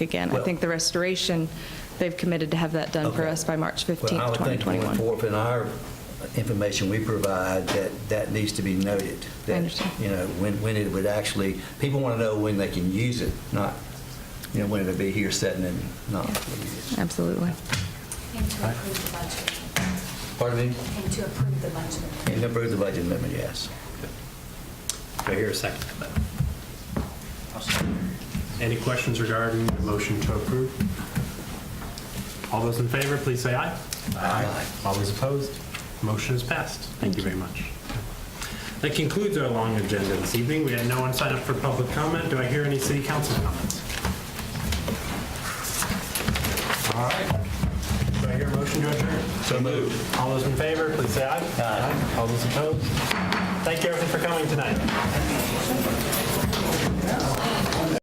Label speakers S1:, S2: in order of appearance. S1: again. I think the restoration, they've committed to have that done for
S2: Okay.
S1: us by March 15th,
S2: Well, I would think going
S1: 2021.
S2: forward, in our information we provide, that that needs to be noted. that,
S1: understand.
S2: You know, when, when it would actually, people want to know when they can use it, not, you know, when it'll be here sitting and not.
S1: Absolutely.
S3: And to approve the budget.
S2: Pardon me?
S3: And to approve the budget.
S2: And approve the budget amendment, yes.
S4: Do I hear a second? Any questions regarding the motion to approve? All those in favor, please say aye.
S2: Aye.
S4: All those opposed? Motion is passed. Thank you very much. That concludes our long agenda this evening. We had no one sign up for public comment. Do I hear any city council comments? All right. Do I hear a motion to adjourn? So moved. All those in favor, please say aye. Aye. All those opposed? Thank you everyone for coming tonight.